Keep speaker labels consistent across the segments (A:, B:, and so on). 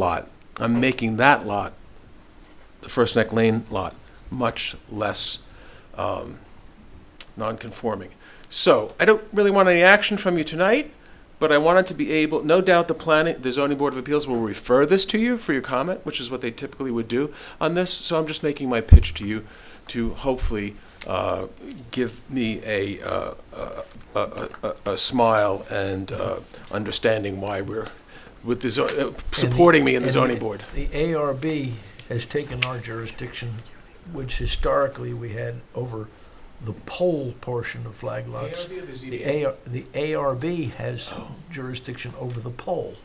A: lot. I'm making that lot, the First Neck Lane lot, much less um, non-conforming. So I don't really want any action from you tonight, but I wanted to be able, no doubt the planning, the zoning board of appeals will refer this to you for your comment, which is what they typically would do on this. So I'm just making my pitch to you to hopefully uh, give me a, uh, a- a, a- a smile and uh, understanding why we're with the, zo- uh, supporting me in the
B: and
A: zoning board.
B: The ARB has taken our jurisdiction, which historically we had over the pole portion of flag lots. The AR, the ARB has jurisdiction over the pole.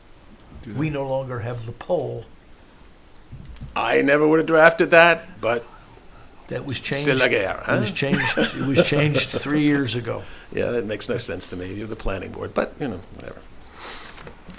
B: We no longer have the pole.
A: I never would have drafted that, but
B: That was changed.
A: c'est la guerre,
B: It was
A: huh?
B: changed, it was changed three years ago.
A: Yeah, that makes no sense to me. You're the planning board, but you know, whatever.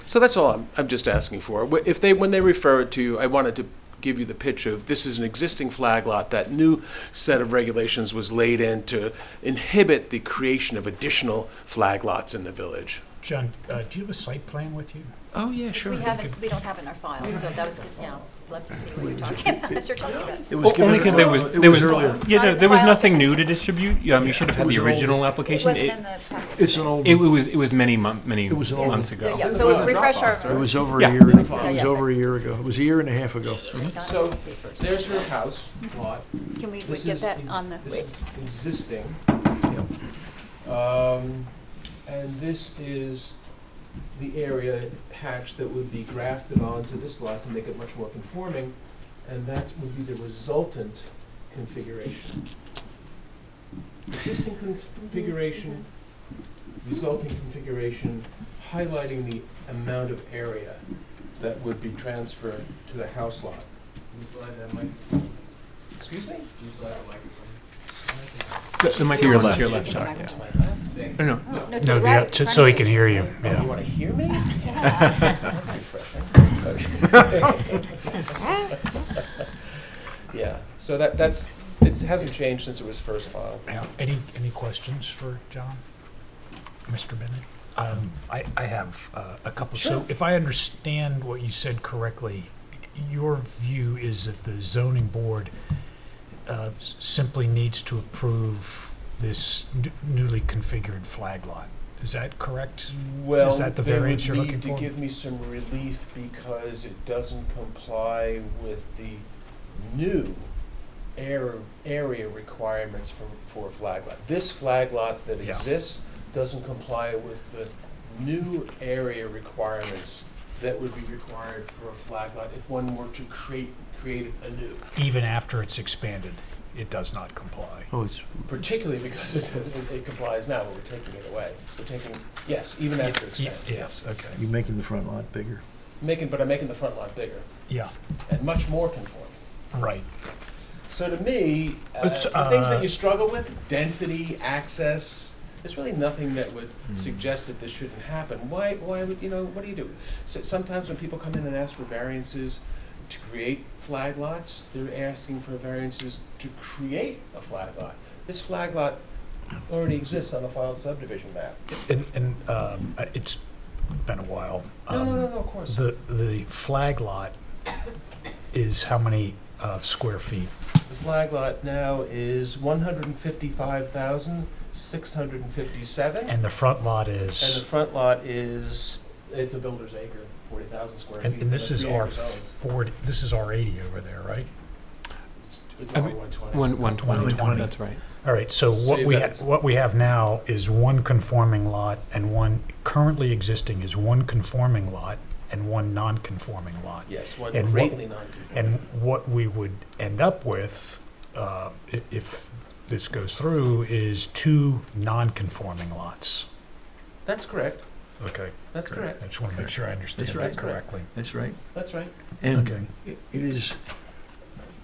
A: So that's all I'm, I'm just asking for. Wh- If they, when they refer it to you, I wanted to give you the pitch of this is an existing flag lot. That new set of regulations was laid in to inhibit the creation of additional flag lots in the village.
C: John, uh, do you have a site plan with you?
A: Oh, yeah,
D: We haven't, we don't have it in our file, so that was, good. yeah, love to see what you're talking about, as you're talking about.
B: It was
E: O-
B: given-
E: Only because there was,
B: it
E: there was,
B: earlier.
E: yeah, no,
D: It's
E: there was
D: not in the
E: nothing new to distribute. Um, you should have
B: It
E: had
B: was
E: the
B: an old-
E: original
D: It
E: application.
D: wasn't
E: It,
D: in the package.
B: It's an old,
E: it
B: it
E: was, it was many months, many
B: It was an old-
E: months
D: Yeah,
E: ago.
D: yeah, so refresh our.
B: was over a
E: Yeah.
B: year, it
D: Yeah,
B: was
D: yeah,
B: over a
D: but
B: year
D: it's-
B: ago. It was a year and a half ago.
A: So,
D: Donna must be first.
A: There's her house lot.
D: Can we we
A: This
D: get
A: is
D: that
A: in-
D: on the, wait,
A: This is existing. Um, And this is the area hatch that would be grafted onto this lot to make it much more conforming, and that would be the resultant configuration. Existing configuration, resulting configuration, highlighting the amount of area that would be transferred to the house lot. Excuse me?
E: The, the mic
D: Oh, To your
E: on
D: left.
E: To your left, sorry.
D: To
E: Yeah.
A: my left?
E: No, no.
D: oh, no, to the
C: No,
D: right
C: the,
D: in
C: so
D: front
C: he
D: of
C: can hear you,
A: Oh, you
C: yeah.
A: want to hear me? That's refreshing. Yeah, so that, that's, it hasn't changed since it was first filed.
C: Any, any questions for John? Mr. Bennett? Um, I, I have uh, a couple.
A: Sure.
C: So if I understand what you said correctly, your view is that the zoning board uh, s- simply needs to approve this n- newly configured flag lot. Is that correct?
A: Well,
C: Is that the
A: they would
C: variance you're looking
A: need to
C: for?
A: give me some relief because it doesn't comply with the new air, area requirements for, for a flag lot. This flag lot that
C: Yeah.
A: exists doesn't comply with the new area requirements that would be required for a flag lot if one were to create, create it anew.
C: Even after it's expanded, it does not comply.
B: Oh, it's,
A: Particularly because it doesn't, it- it complies now, but we're taking it away. We're taking, yes, even after
C: Yeah,
A: expansion.
C: Yes, okay.
B: you're making the front lot bigger.
A: Making, but I'm making the front lot bigger.
C: Yeah,
A: and much more conforming.
C: right.
A: So to me, uh,
C: It's,
A: the things that
C: uh,
A: you struggle with, density, access, there's really nothing that would
C: Hmm.
A: suggest that this shouldn't happen. Why, why would, you know, what do you do? So sometimes when people come in and ask for variances to create flag lots, they're asking for variances to create a flag lot. This flag lot already exists on the filed subdivision map.
C: And, and um, uh, it's been a while.
A: No, no,
C: Um,
A: no, no, of course.
C: The, the flag lot is how many uh, square feet?
A: The flag lot now is one hundred and fifty-five thousand, six hundred and fifty-seven.
C: And the front lot
A: And the
C: is,
A: front lot is, it's a builder's acre, forty thousand square feet.
C: and and this
A: that's
C: is
A: three
C: R
A: acres owned.
C: forty, this is R eighty over there, right?
A: It's- It's
E: I
A: R
E: mean,
A: one twenty.
E: One, one twenty,
C: 120.
E: that's right.
C: All right, so
A: So
C: what
A: you've
C: we,
A: got
C: ha-
A: ex-
C: what we have now is one conforming lot and one, currently existing is one conforming lot and one non-conforming lot.
A: Yes, one
C: and what-
A: greatly non-conforming.
C: And what we would end up with, uh, i- if this goes through, is two non-conforming lots.
A: That's correct,
C: Okay.
A: that's correct,
C: I just want to make sure I understand
B: That's
A: right.
C: that correctly.
B: That's right.
A: that's right.
B: And
C: Okay.
B: it it is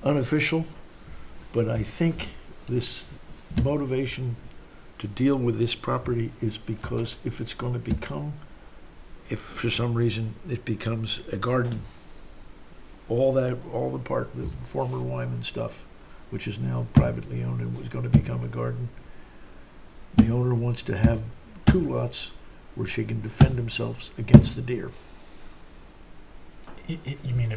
B: unofficial, but I think this motivation to deal with this property is because if it's going to become, if for some reason it becomes a garden, all that, all the part, the former Wyman stuff, which is now privately owned and was going to become a garden, the owner wants to have two lots where she can defend themselves against the deer. Y- y- You mean